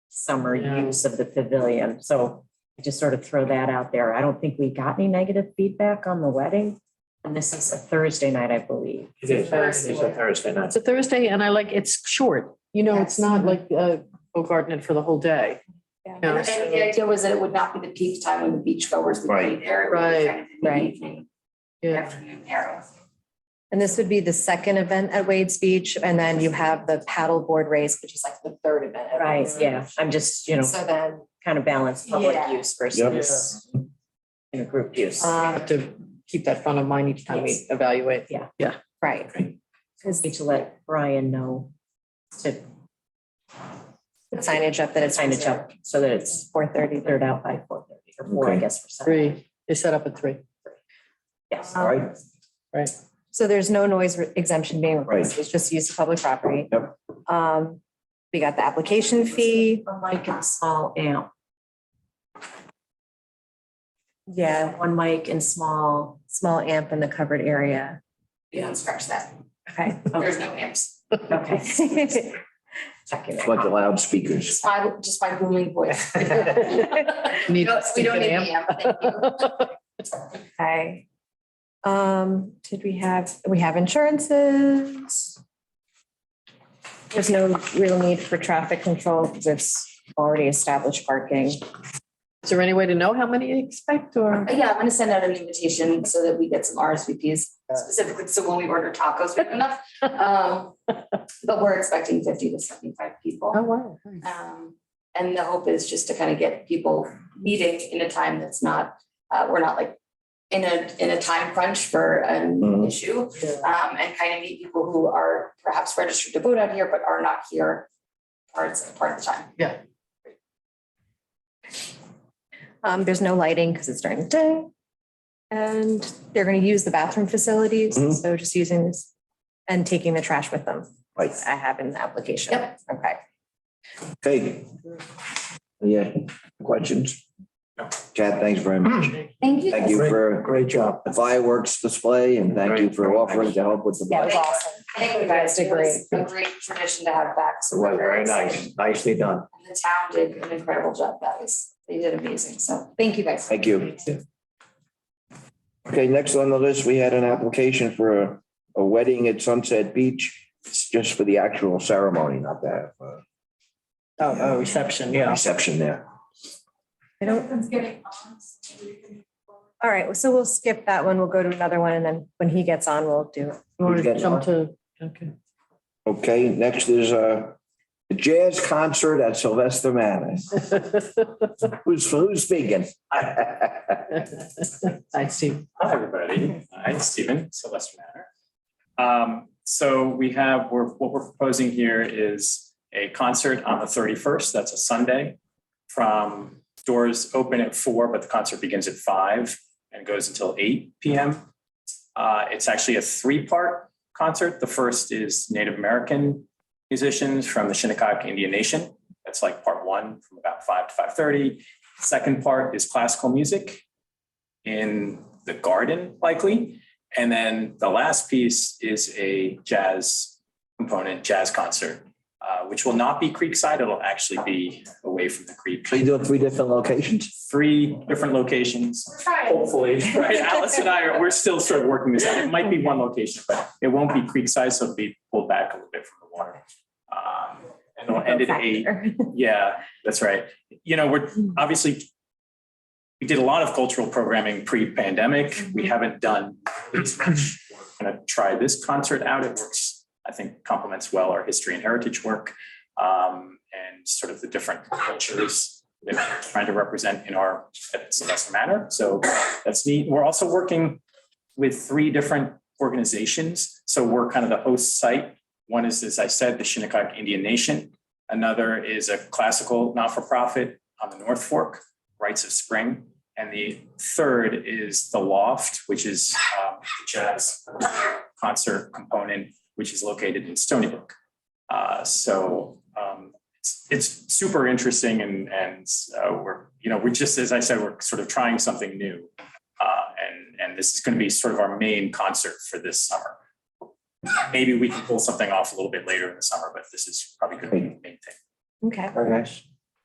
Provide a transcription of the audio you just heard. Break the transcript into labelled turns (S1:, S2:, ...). S1: summer
S2: Yeah.
S1: use of the pavilion. So I just sort of throw that out there. I don't think we got any negative feedback on the wedding. And this is a Thursday night, I believe.
S3: It is, it is a Thursday night.
S2: It's a Thursday and I like, it's short, you know, it's not like, uh, go garden it for the whole day.
S4: Yeah.
S2: Yeah,
S4: And and the idea was that it would not be the peak time when the beachgoers would
S3: Right.
S4: be there. It would be
S2: Right.
S4: kind of in the
S5: Right.
S4: evening,
S2: Yeah.
S4: Afternoon arrow.
S5: And this would be the second event at Wade's Beach, and then you have the paddleboard race, which is like the third event. at
S1: Right,
S5: Wade's
S1: yeah. I'm just, you know,
S5: So then,
S1: kind of balance public
S4: Yeah.
S1: use versus you know, group use.
S5: um,
S2: Have to keep that front of mind each time we evaluate.
S5: right,
S1: Need to let Brian know to
S5: signage up that it's.
S1: signage up so that it's
S5: Four thirty.
S1: cleared out by four thirty or four, I
S3: Okay.
S1: guess, for some.
S2: Three, they set up at three.
S1: Yes.
S3: All right,
S5: Um, So there's no noise exemption being requested, it's just use of public property.
S3: Yep.
S5: Um, we got the application fee,
S1: Unlike in small amp.
S5: yeah,
S1: One mic and small.
S5: small amp in the covered area.
S4: You don't scratch that.
S5: Okay.
S2: Oh.
S4: There's no amps.
S1: Okay. Checking
S3: it's
S1: it.
S3: like the
S4: Just
S3: loudspeakers.
S4: my, just my booming voice. We don't
S2: Need
S4: we
S2: to
S4: don't
S2: stick
S4: need
S2: an
S4: the
S2: amp.
S4: amp. Thank you.
S5: Okay. Um, did we have, we have insurances? There's no real need for traffic control because it's already established parking.
S2: Is there any way to know how many you expect or?
S4: Uh, Yeah, I'm gonna send out an invitation so that we get some RSVPs specifically, so when we order tacos, we have enough. Um, But we're expecting fifty to seventy-five
S2: Oh,
S4: people.
S2: wow.
S4: Um, And the hope is just to kind of get people meeting in a time that's not, uh, we're not like in a, in a time crunch for an
S3: Mhm.
S4: issue.
S2: Yeah.
S4: Um, and kind of meet people who are perhaps registered to vote out here, but are not here parts, part of the time.
S5: Um, there's no lighting because it's during the day. And they're going to use the bathroom facilities,
S3: Mhm.
S5: so just using this and taking the trash with them.
S3: Right.
S5: I have in the application.
S4: Yep.
S5: Okay.
S3: Okay. Yeah, questions? Chad, thanks very much.
S4: Thank you.
S3: Thank you for
S6: Great job.
S3: the fireworks display and thank you for offering to help with the.
S5: That was awesome.
S4: Thank you guys. It was a great tradition to have back. so
S3: Well,
S4: we're
S3: very
S4: excited.
S3: nice, nicely done.
S4: And the town did an incredible job. That was, they did amazing. So thank you guys.
S3: Thank you. Okay, next on the list, we had an application for a, a wedding at Sunset Beach. It's just for the actual ceremony, not that uh,
S2: Oh, oh, reception, yeah.
S3: reception there.
S5: I don't All right, so we'll skip that one. We'll go to another one and then when he gets on, we'll do.
S2: You want to jump to, okay.
S3: Okay, next is uh, the jazz concert at Sylvester Manor. Who's, who's speaking?
S2: I see.
S7: Hi, everybody. I'm Stephen Sylvester Manor. Um, so we have, we're, what we're proposing here is a concert on the thirty-first, that's a Sunday. From, doors open at four, but the concert begins at five and goes until eight PM. Uh, it's actually a three-part concert. The first is Native American musicians from the Shinnecock Indian Nation. That's like part one, from about five to five-thirty. Second part is classical music in the garden likely. And then the last piece is a jazz component, jazz concert, uh, which will not be Creekside. It'll actually be away from the creek.
S3: So you do it three different locations?
S7: Three different locations,
S4: We're trying.
S7: hopefully, right? Alice and I are, we're still sort of working this out. It might be one location, but it won't be Creekside, so it'll be pulled back a little bit from the water. Um, And it'll end at eight. Yeah, that's right. You know, we're obviously, we did a lot of cultural programming pre-pandemic. We haven't done as much. We're Going to try this concert out. It works, I think complements well our history and heritage work um, and sort of the different cultures that we're trying to represent in our at Sylvester Manor. So that's neat. We're also working with three different organizations. So we're kind of the host site. One is, as I said, the Shinnecock Indian Nation. Another is a classical not-for-profit on the North Fork, Rites of Spring. And the third is The Loft, which is um, a jazz concert component, which is located in Stony Brook. Uh, So um, it's, it's super interesting and, and uh, we're, you know, we're just, as I said, we're sort of trying something new. Uh, And, and this is going to be sort of our main concert for this summer. Maybe we can pull something off a little bit later in the summer, but this is probably going to be the main thing.
S5: Okay,
S3: Very nice.